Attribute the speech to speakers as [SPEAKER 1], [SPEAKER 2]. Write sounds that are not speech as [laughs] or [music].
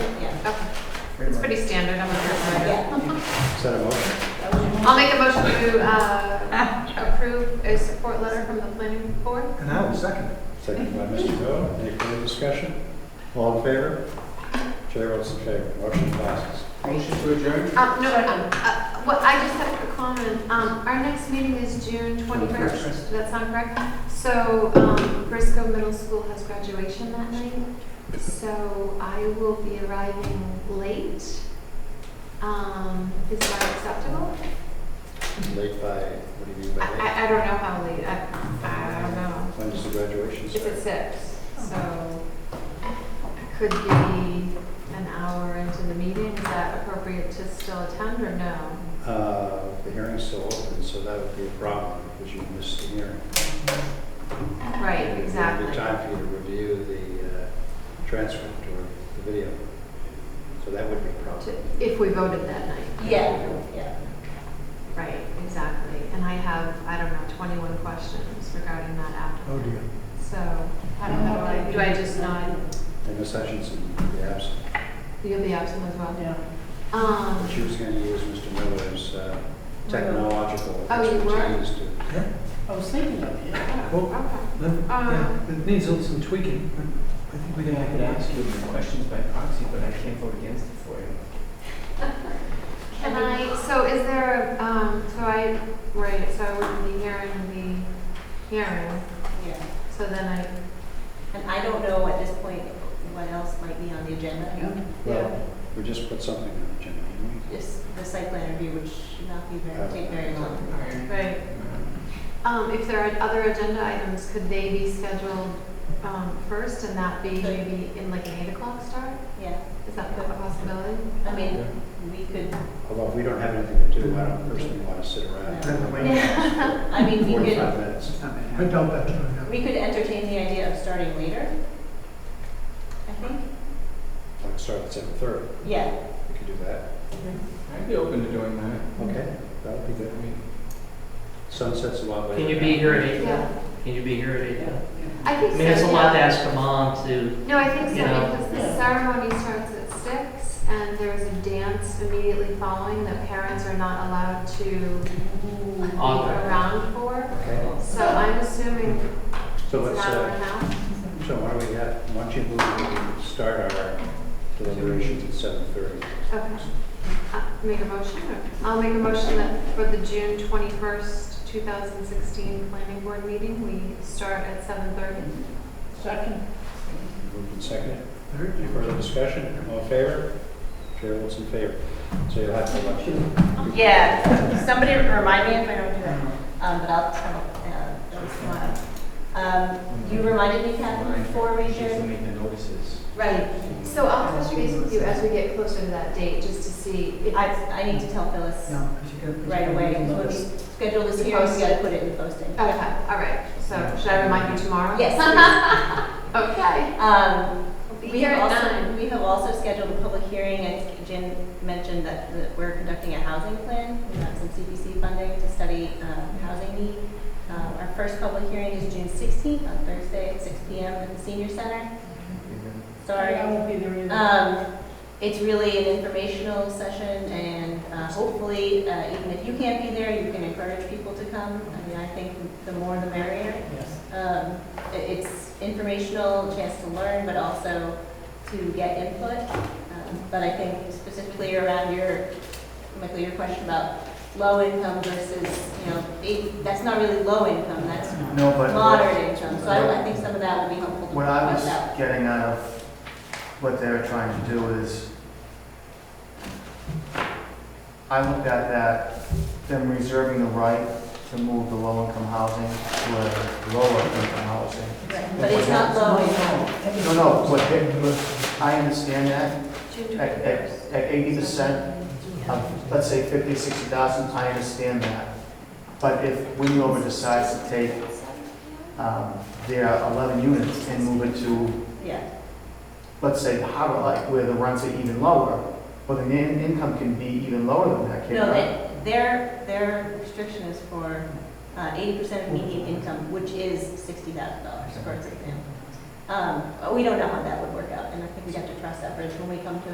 [SPEAKER 1] It's pretty standard, I'm a first writer.
[SPEAKER 2] Is that a motion?
[SPEAKER 1] I'll make a motion to uh, approve a support letter from the planning board.
[SPEAKER 3] And I will second it.
[SPEAKER 2] Second by Mr. Doe. Any further discussion? All in favor? Chair votes in favor. Motion passes.
[SPEAKER 3] Motion to adjourn?
[SPEAKER 1] Uh, No, um, uh, what, I just have a quick comment. Um, Our next meeting is June 21st, does that sound correct? So um, Briscoe Middle School has graduation that night, so I will be arriving late. Um, Is that acceptable?
[SPEAKER 2] Late by, what do you mean
[SPEAKER 1] I-
[SPEAKER 2] by late?
[SPEAKER 1] I, I don't know how late, I, I don't know.
[SPEAKER 2] When does the graduation
[SPEAKER 1] It's at
[SPEAKER 2] start?
[SPEAKER 1] six, so it could be an hour into the meeting. Is that appropriate to still attend or no?
[SPEAKER 2] Uh, The hearing's still open, so that would be a problem because you missed the hearing.
[SPEAKER 1] Right,
[SPEAKER 2] It would
[SPEAKER 1] exactly.
[SPEAKER 2] be time for you to review the uh, transcript or the video. So that would be a problem.
[SPEAKER 1] To- If we voted that night,
[SPEAKER 4] Yeah, yeah.
[SPEAKER 1] right, exactly. And I have, I don't know, 21 questions regarding that
[SPEAKER 3] Oh,
[SPEAKER 1] after.
[SPEAKER 3] dear.
[SPEAKER 1] So I don't know, do I- do I just nod?
[SPEAKER 2] And Ms. Hutchinson would be absent.
[SPEAKER 1] You'll be absent as well?
[SPEAKER 4] Yeah.
[SPEAKER 1] Um,
[SPEAKER 2] She was going to use Mr. Miller's uh, technological
[SPEAKER 1] Oh, you were?
[SPEAKER 2] expertise to
[SPEAKER 3] Yeah,
[SPEAKER 4] I was thinking of it.
[SPEAKER 3] well,
[SPEAKER 1] okay.
[SPEAKER 3] then, yeah,
[SPEAKER 1] Um,
[SPEAKER 3] it needs some tweaking, but I think we
[SPEAKER 5] I
[SPEAKER 3] can
[SPEAKER 5] mean, I
[SPEAKER 3] make
[SPEAKER 5] could
[SPEAKER 3] it
[SPEAKER 5] ask
[SPEAKER 3] out.
[SPEAKER 5] you questions by proxy, but I can't vote against it for you.
[SPEAKER 1] Can I, so is there, a, um, so I, right, so I would be hearing the hearing,
[SPEAKER 4] Yeah.
[SPEAKER 1] so then I
[SPEAKER 4] And I don't know at this point what else might be on the agenda.
[SPEAKER 2] Well, we just put something on the agenda, didn't
[SPEAKER 4] Just the site plan review, which should not be very, take very long.
[SPEAKER 1] Right. Um, if there are other agenda items, could they be scheduled, um, first and that be maybe in like an eight o'clock start?
[SPEAKER 4] Yeah,
[SPEAKER 1] Is that a possibility?
[SPEAKER 4] I mean, we could,
[SPEAKER 2] Although if we don't have anything to do, I don't personally want to sit around.
[SPEAKER 4] No.
[SPEAKER 2] and wait
[SPEAKER 6] [laughs]
[SPEAKER 4] I mean, we could,
[SPEAKER 2] Forty-five minutes.
[SPEAKER 3] I doubt that's going to happen.
[SPEAKER 4] we could entertain the idea of starting later. I think,
[SPEAKER 2] Like start at seven thirty,
[SPEAKER 4] yeah.
[SPEAKER 2] we could do that.
[SPEAKER 5] I'd be open to doing that.
[SPEAKER 2] Okay, that would be
[SPEAKER 5] I
[SPEAKER 2] good.
[SPEAKER 5] mean,
[SPEAKER 2] Sunsets a lot later.
[SPEAKER 6] Can you be here at eight?
[SPEAKER 1] Yeah,
[SPEAKER 6] Can you be here at eight?
[SPEAKER 1] I
[SPEAKER 6] I
[SPEAKER 1] think so.
[SPEAKER 6] mean, it's a lot to
[SPEAKER 1] yeah.
[SPEAKER 6] ask a mom to,
[SPEAKER 1] No, I think so,
[SPEAKER 6] you know.
[SPEAKER 1] because the ceremony starts at six and there is a dance immediately following that parents are not allowed to be
[SPEAKER 6] Author.
[SPEAKER 1] around for.
[SPEAKER 2] Okay,
[SPEAKER 1] So I'm assuming it's
[SPEAKER 2] so
[SPEAKER 1] an
[SPEAKER 2] let's,
[SPEAKER 1] hour
[SPEAKER 2] uh,
[SPEAKER 1] and a half.
[SPEAKER 2] so why don't we have, why don't you move, we start our deliberations at seven thirty.
[SPEAKER 1] Okay. Uh, Make a motion? or- I'll make a motion that for the June 21st, 2016 Planning Board meeting, we start at 7:30.
[SPEAKER 4] Second.
[SPEAKER 2] Moved and seconded.
[SPEAKER 3] Third.
[SPEAKER 2] Any further discussion? All in favor? Chair votes in favor. So you'll have to elect
[SPEAKER 4] Yeah, [laughs] somebody remind me if I don't do that, um, but I'll tell, uh, that's tomorrow. Um, you reminded me, Catherine, before we
[SPEAKER 5] She has to
[SPEAKER 4] adjourn?
[SPEAKER 5] make the notices.
[SPEAKER 4] Right.
[SPEAKER 1] So I'll touch base with you as we get closer to that date, just to see if
[SPEAKER 4] I, I need to tell Phyllis right away, when we schedule this
[SPEAKER 1] The
[SPEAKER 4] hearing, we
[SPEAKER 1] posting.
[SPEAKER 4] gotta put it in posting.
[SPEAKER 1] Okay, all right. So should I remind you tomorrow?
[SPEAKER 4] Yes. please.
[SPEAKER 1] Okay.
[SPEAKER 4] Um,
[SPEAKER 1] We'll be
[SPEAKER 4] we
[SPEAKER 1] here
[SPEAKER 4] have
[SPEAKER 1] at
[SPEAKER 4] also,
[SPEAKER 1] nine.
[SPEAKER 4] we have also scheduled a public hearing, I think Jen mentioned that, that we're conducting a housing plan. We have some CPC funding to study, um, housing need. Um, our first public hearing is June sixteenth, on Thursday at six P M at the senior center. Sorry. I won't be there Um, it's really an informational session and uh, hopefully, uh, even if you can't be there, you can encourage people to come. I mean, I think the more the merrier. Um, i- it's informational, chance to learn, but also to get input. Um, But I think specifically around your, Michael, your question about low income versus, you know, eight- that's not really low income, that's
[SPEAKER 7] No, but
[SPEAKER 4] moderate
[SPEAKER 7] what-
[SPEAKER 4] income. So I, I think some of that will be helpful to
[SPEAKER 7] what
[SPEAKER 4] point
[SPEAKER 7] I was
[SPEAKER 4] out.
[SPEAKER 7] getting out of what they're trying to do is, I looked at that, them reserving the right to move the low-income housing to a lower-income housing.
[SPEAKER 4] Right, But it's not low income.
[SPEAKER 7] No, no, what they, I understand that, at, at, at eighty percent of, Uh, let's say fifty, sixty thousand, I understand that. But if Windover decides to take, um, their eleven units and move it to
[SPEAKER 4] Yeah,
[SPEAKER 7] let's say, how like, where the rents are even lower, but the in- income can be even lower than that,
[SPEAKER 4] no,
[SPEAKER 7] can
[SPEAKER 4] they- their, their restriction is for uh, eighty percent of median income, which is sixty thousand dollars, for example. Um, We don't know how that would work out, and I think we have to cross that bridge when we come to